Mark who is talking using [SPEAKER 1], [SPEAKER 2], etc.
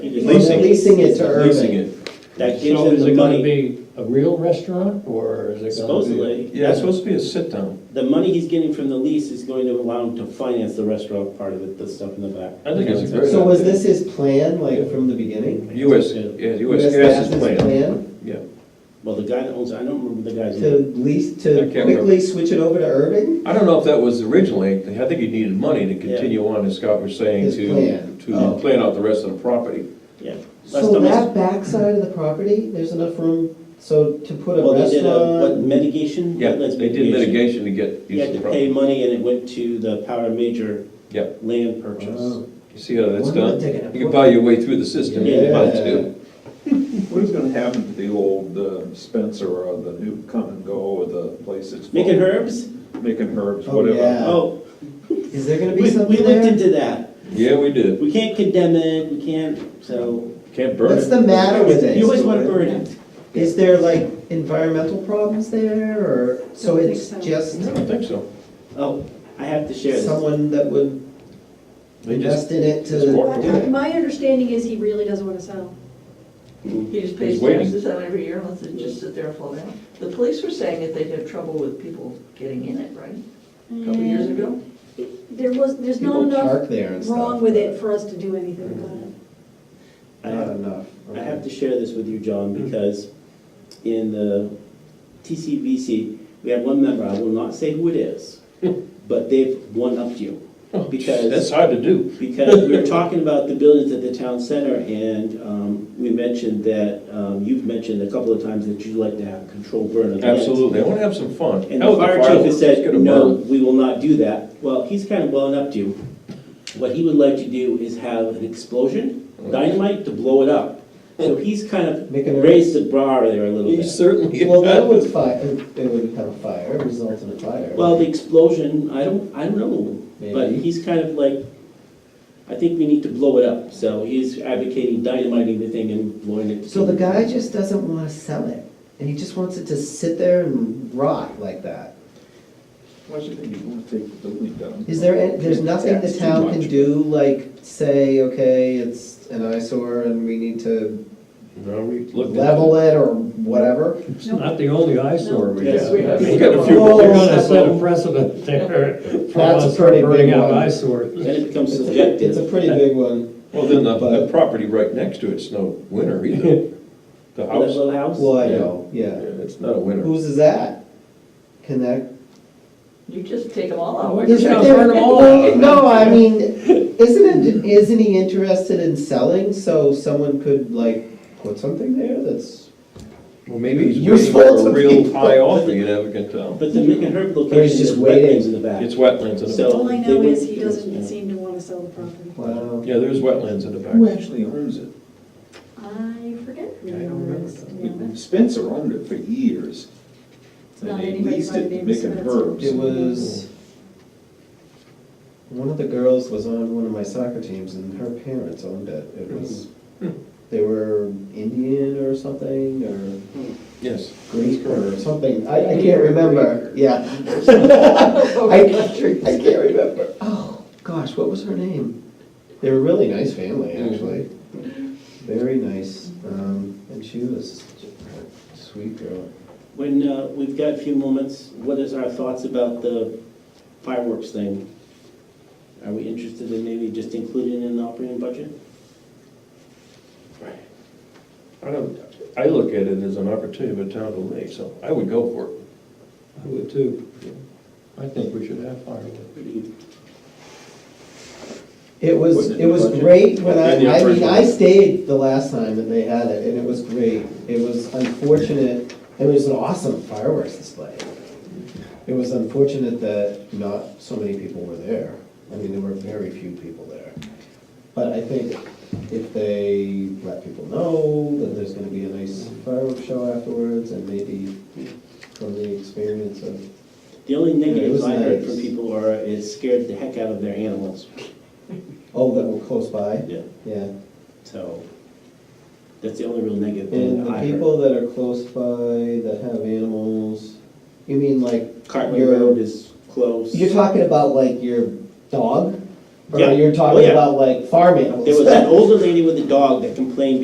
[SPEAKER 1] You're
[SPEAKER 2] We're
[SPEAKER 1] leasing.
[SPEAKER 2] leasing it to
[SPEAKER 1] Leasing
[SPEAKER 2] Urban.
[SPEAKER 1] it. That gives
[SPEAKER 3] So
[SPEAKER 1] them
[SPEAKER 3] is
[SPEAKER 1] the
[SPEAKER 3] it gonna
[SPEAKER 1] money,
[SPEAKER 3] be a real restaurant, or is it gonna be?
[SPEAKER 1] supposedly.
[SPEAKER 4] Yeah, it's supposed to be a sit-down.
[SPEAKER 1] The money he's getting from the lease is going to allow him to finance the restaurant part of it, the stuff in the back.
[SPEAKER 4] I think it's a great
[SPEAKER 2] So was this his plan, like, from the beginning?
[SPEAKER 4] US, yeah, US
[SPEAKER 2] US
[SPEAKER 4] Gas is
[SPEAKER 2] Gas's
[SPEAKER 4] playing. Yeah,
[SPEAKER 1] Well, the guy that owns, I don't remember the guy's
[SPEAKER 2] To
[SPEAKER 1] name.
[SPEAKER 2] lease, to
[SPEAKER 4] I can't remember.
[SPEAKER 2] quickly switch it over to Urban?
[SPEAKER 4] I don't know if that was originally, I think he needed money to continue on, as Scott was saying,
[SPEAKER 2] His
[SPEAKER 4] to,
[SPEAKER 2] plan.
[SPEAKER 4] to
[SPEAKER 2] Oh.
[SPEAKER 4] plan out the rest of the property.
[SPEAKER 1] Yeah. Last
[SPEAKER 2] So
[SPEAKER 1] time I-
[SPEAKER 2] that backside of the property, there's enough room, so to put a
[SPEAKER 1] Well, they did a, what,
[SPEAKER 2] restaurant?
[SPEAKER 1] mitigation?
[SPEAKER 4] Yeah,
[SPEAKER 1] Wetlands
[SPEAKER 4] they did mitigation to get
[SPEAKER 1] He
[SPEAKER 4] use
[SPEAKER 1] had
[SPEAKER 4] of
[SPEAKER 1] to
[SPEAKER 4] the
[SPEAKER 1] pay
[SPEAKER 4] property.
[SPEAKER 1] money and it went to the Power Major
[SPEAKER 4] Yeah,
[SPEAKER 1] land purchase.
[SPEAKER 2] Wow.
[SPEAKER 4] you see how that's
[SPEAKER 2] Why am I
[SPEAKER 4] done?
[SPEAKER 2] taking a
[SPEAKER 4] You can
[SPEAKER 2] photo?
[SPEAKER 4] buy your way through the system if you want
[SPEAKER 2] Yeah.
[SPEAKER 4] to.
[SPEAKER 5] What is gonna happen to the old uh, Spencer or the new Come and Go or the place that's?
[SPEAKER 1] Making herbs?
[SPEAKER 5] Making herbs,
[SPEAKER 2] Oh,
[SPEAKER 5] whatever.
[SPEAKER 2] yeah.
[SPEAKER 1] Oh,
[SPEAKER 2] Is there gonna
[SPEAKER 1] we,
[SPEAKER 2] be
[SPEAKER 1] we
[SPEAKER 2] something
[SPEAKER 1] looked
[SPEAKER 2] there?
[SPEAKER 1] into that.
[SPEAKER 4] Yeah, we did.
[SPEAKER 1] We can't condemn it, we can't, so.
[SPEAKER 4] Can't burn
[SPEAKER 2] What's
[SPEAKER 4] it.
[SPEAKER 2] the matter with it?
[SPEAKER 1] You always want to burn it.
[SPEAKER 2] Is there like environmental problems there, or, so
[SPEAKER 6] Don't think
[SPEAKER 2] it's
[SPEAKER 6] so.
[SPEAKER 2] just
[SPEAKER 4] I don't think so.
[SPEAKER 1] Oh, I have to share this.
[SPEAKER 2] someone that would
[SPEAKER 4] They
[SPEAKER 2] invest
[SPEAKER 4] just,
[SPEAKER 2] in it
[SPEAKER 4] just
[SPEAKER 2] to,
[SPEAKER 4] walked
[SPEAKER 6] My
[SPEAKER 4] away.
[SPEAKER 6] my understanding is he really doesn't want to sell.
[SPEAKER 1] Mm.
[SPEAKER 7] He just
[SPEAKER 4] He's
[SPEAKER 7] pays
[SPEAKER 4] waiting.
[SPEAKER 7] taxes on every year and lets it just sit there and fall down. The police were saying that they'd have trouble with people getting in it, right? A couple years ago?
[SPEAKER 6] Mm. There was, there's not
[SPEAKER 2] people
[SPEAKER 6] enough
[SPEAKER 2] park there and stuff.
[SPEAKER 6] wrong with it
[SPEAKER 2] but
[SPEAKER 6] for us to do anything about it.
[SPEAKER 1] I
[SPEAKER 2] Not
[SPEAKER 1] have,
[SPEAKER 2] enough.
[SPEAKER 1] Uh, I have to share this with you, John, because in the TCVC, we had one member, I will not say who it is, but they've one-upped you. Because.
[SPEAKER 4] oh, That's hard to do.
[SPEAKER 1] because we were talking about the buildings at the town center, and um, we mentioned that, um, you've mentioned a couple of times that you'd like to have control burn events.
[SPEAKER 4] Absolutely. I want to have some fun.
[SPEAKER 1] And
[SPEAKER 4] Hell,
[SPEAKER 1] the fire chief has
[SPEAKER 4] fireworks, let's
[SPEAKER 1] said,
[SPEAKER 4] get a
[SPEAKER 1] no,
[SPEAKER 4] burn."
[SPEAKER 1] we will not do that. Well, he's kind of well up to, what he would like to do is have an explosion, dynamite to blow it up. So he's kind of
[SPEAKER 2] Make an-
[SPEAKER 1] raised the bar there a little
[SPEAKER 4] He
[SPEAKER 1] bit.
[SPEAKER 4] certainly.
[SPEAKER 2] Well, that would fire, it would have a fire, result in a fire.
[SPEAKER 1] Well, the explosion, I don't, I don't know, but
[SPEAKER 2] Maybe.
[SPEAKER 1] he's kind of like, I think we need to blow it up. So he's advocating dynamiting the thing and blowing it.
[SPEAKER 2] So the guy just doesn't want to sell it, and he just wants it to sit there and rot like that.
[SPEAKER 5] Why should they, you wanna take the building down?
[SPEAKER 2] Is there, any- there's nothing the
[SPEAKER 5] That's too
[SPEAKER 2] town can
[SPEAKER 5] much.
[SPEAKER 2] do, like, say, okay, it's an eyesore and we need to
[SPEAKER 4] No, we looked at it.
[SPEAKER 2] level it or whatever?
[SPEAKER 3] It's not the only eyesore we
[SPEAKER 1] Yes,
[SPEAKER 3] have.
[SPEAKER 1] we
[SPEAKER 3] I
[SPEAKER 4] We
[SPEAKER 3] mean,
[SPEAKER 4] got a few-
[SPEAKER 3] You're gonna
[SPEAKER 2] That's
[SPEAKER 3] set a precedent there for
[SPEAKER 2] That's a
[SPEAKER 3] us
[SPEAKER 2] pretty big
[SPEAKER 3] burning out
[SPEAKER 2] one.
[SPEAKER 3] eyesores.
[SPEAKER 1] Then it becomes
[SPEAKER 2] It's a
[SPEAKER 1] subjective.
[SPEAKER 2] pretty big one.
[SPEAKER 4] Well, then the, the
[SPEAKER 2] But-
[SPEAKER 4] property right next to it's no winner either. The
[SPEAKER 1] That
[SPEAKER 4] house,
[SPEAKER 1] little house.
[SPEAKER 2] Well, I
[SPEAKER 4] Yeah.
[SPEAKER 2] know,
[SPEAKER 4] yeah,
[SPEAKER 2] yeah.
[SPEAKER 4] it's not a winner.
[SPEAKER 2] Whose is that? Can that?
[SPEAKER 7] You just take them all out.
[SPEAKER 3] We're just gonna
[SPEAKER 2] Isn't
[SPEAKER 3] burn them
[SPEAKER 2] there-
[SPEAKER 3] all
[SPEAKER 2] well,
[SPEAKER 3] out.
[SPEAKER 2] No, I mean, isn't it, isn't he interested in selling, so someone could, like, put something there that's
[SPEAKER 4] Well, maybe he's waiting
[SPEAKER 2] Useful
[SPEAKER 4] for a
[SPEAKER 2] to
[SPEAKER 4] real
[SPEAKER 2] people.
[SPEAKER 4] high offer, you never can tell.
[SPEAKER 1] But the Mick and Herb
[SPEAKER 2] Or he's
[SPEAKER 1] location is
[SPEAKER 2] just
[SPEAKER 1] wetlands in
[SPEAKER 2] waiting.
[SPEAKER 1] the back.
[SPEAKER 4] It's wetlands in the
[SPEAKER 1] So-
[SPEAKER 4] back.
[SPEAKER 6] All I
[SPEAKER 1] they
[SPEAKER 6] know
[SPEAKER 1] wouldn't
[SPEAKER 6] is he
[SPEAKER 1] do this, yeah.
[SPEAKER 6] doesn't seem to want to sell the property.
[SPEAKER 2] Wow.
[SPEAKER 4] Yeah, there's wetlands in the
[SPEAKER 5] Who
[SPEAKER 4] back.
[SPEAKER 5] actually owns it?
[SPEAKER 6] I forget who
[SPEAKER 4] I
[SPEAKER 6] it
[SPEAKER 4] don't remember
[SPEAKER 6] was, to be honest.
[SPEAKER 5] Spencer owned it for years.
[SPEAKER 6] It's
[SPEAKER 5] And
[SPEAKER 6] not
[SPEAKER 5] they
[SPEAKER 6] anybody
[SPEAKER 5] leased
[SPEAKER 6] by the
[SPEAKER 5] it to
[SPEAKER 6] name of
[SPEAKER 5] Making
[SPEAKER 6] Spencer.
[SPEAKER 5] Herbs.
[SPEAKER 2] It was, one of the girls was on one of my soccer teams and her parents owned it. It was, they were Indian or something, or
[SPEAKER 4] Yes.
[SPEAKER 2] Greek or something, I, I can't remember, yeah. I, I can't remember. Oh, gosh, what was her name? They were a really nice family, actually. Very nice, um, and she was a sweet girl.
[SPEAKER 1] When, uh, we've got a few moments, what is our thoughts about the fireworks thing? Are we interested in maybe just including it in the operating budget?
[SPEAKER 4] I don't, I look at it as an opportunity for the town to leave, so I would go for it.
[SPEAKER 3] I would too.
[SPEAKER 4] I think we should have fireworks.
[SPEAKER 2] It was,
[SPEAKER 5] Wasn't it
[SPEAKER 2] it was
[SPEAKER 5] budget?
[SPEAKER 2] great when I,
[SPEAKER 4] And the
[SPEAKER 2] I mean,
[SPEAKER 4] original.
[SPEAKER 2] I stayed the last time that they had it, and it was great. It was unfortunate, it was an awesome fireworks display. It was unfortunate that not so many people were there. I mean, there were very few people there. But I think if they let people know that there's gonna be a nice fireworks show afterwards, and maybe from the experience of,
[SPEAKER 1] The only negatives
[SPEAKER 2] was
[SPEAKER 1] I heard
[SPEAKER 2] nice.
[SPEAKER 1] from people are, it scared the heck out of their animals.
[SPEAKER 2] oh, that were close by,
[SPEAKER 1] Yeah.
[SPEAKER 2] yeah.
[SPEAKER 1] So, that's the only real negative
[SPEAKER 2] And
[SPEAKER 1] thing
[SPEAKER 2] the
[SPEAKER 1] I heard.
[SPEAKER 2] people that are close by that have animals, you mean like,
[SPEAKER 1] Cartwright
[SPEAKER 2] your-
[SPEAKER 1] Road is close.
[SPEAKER 2] you're talking about like your dog? Or
[SPEAKER 1] Yeah.
[SPEAKER 2] you're
[SPEAKER 1] Oh,
[SPEAKER 2] talking
[SPEAKER 1] yeah.
[SPEAKER 2] about like farm animals.
[SPEAKER 1] There was an older lady with a dog that complained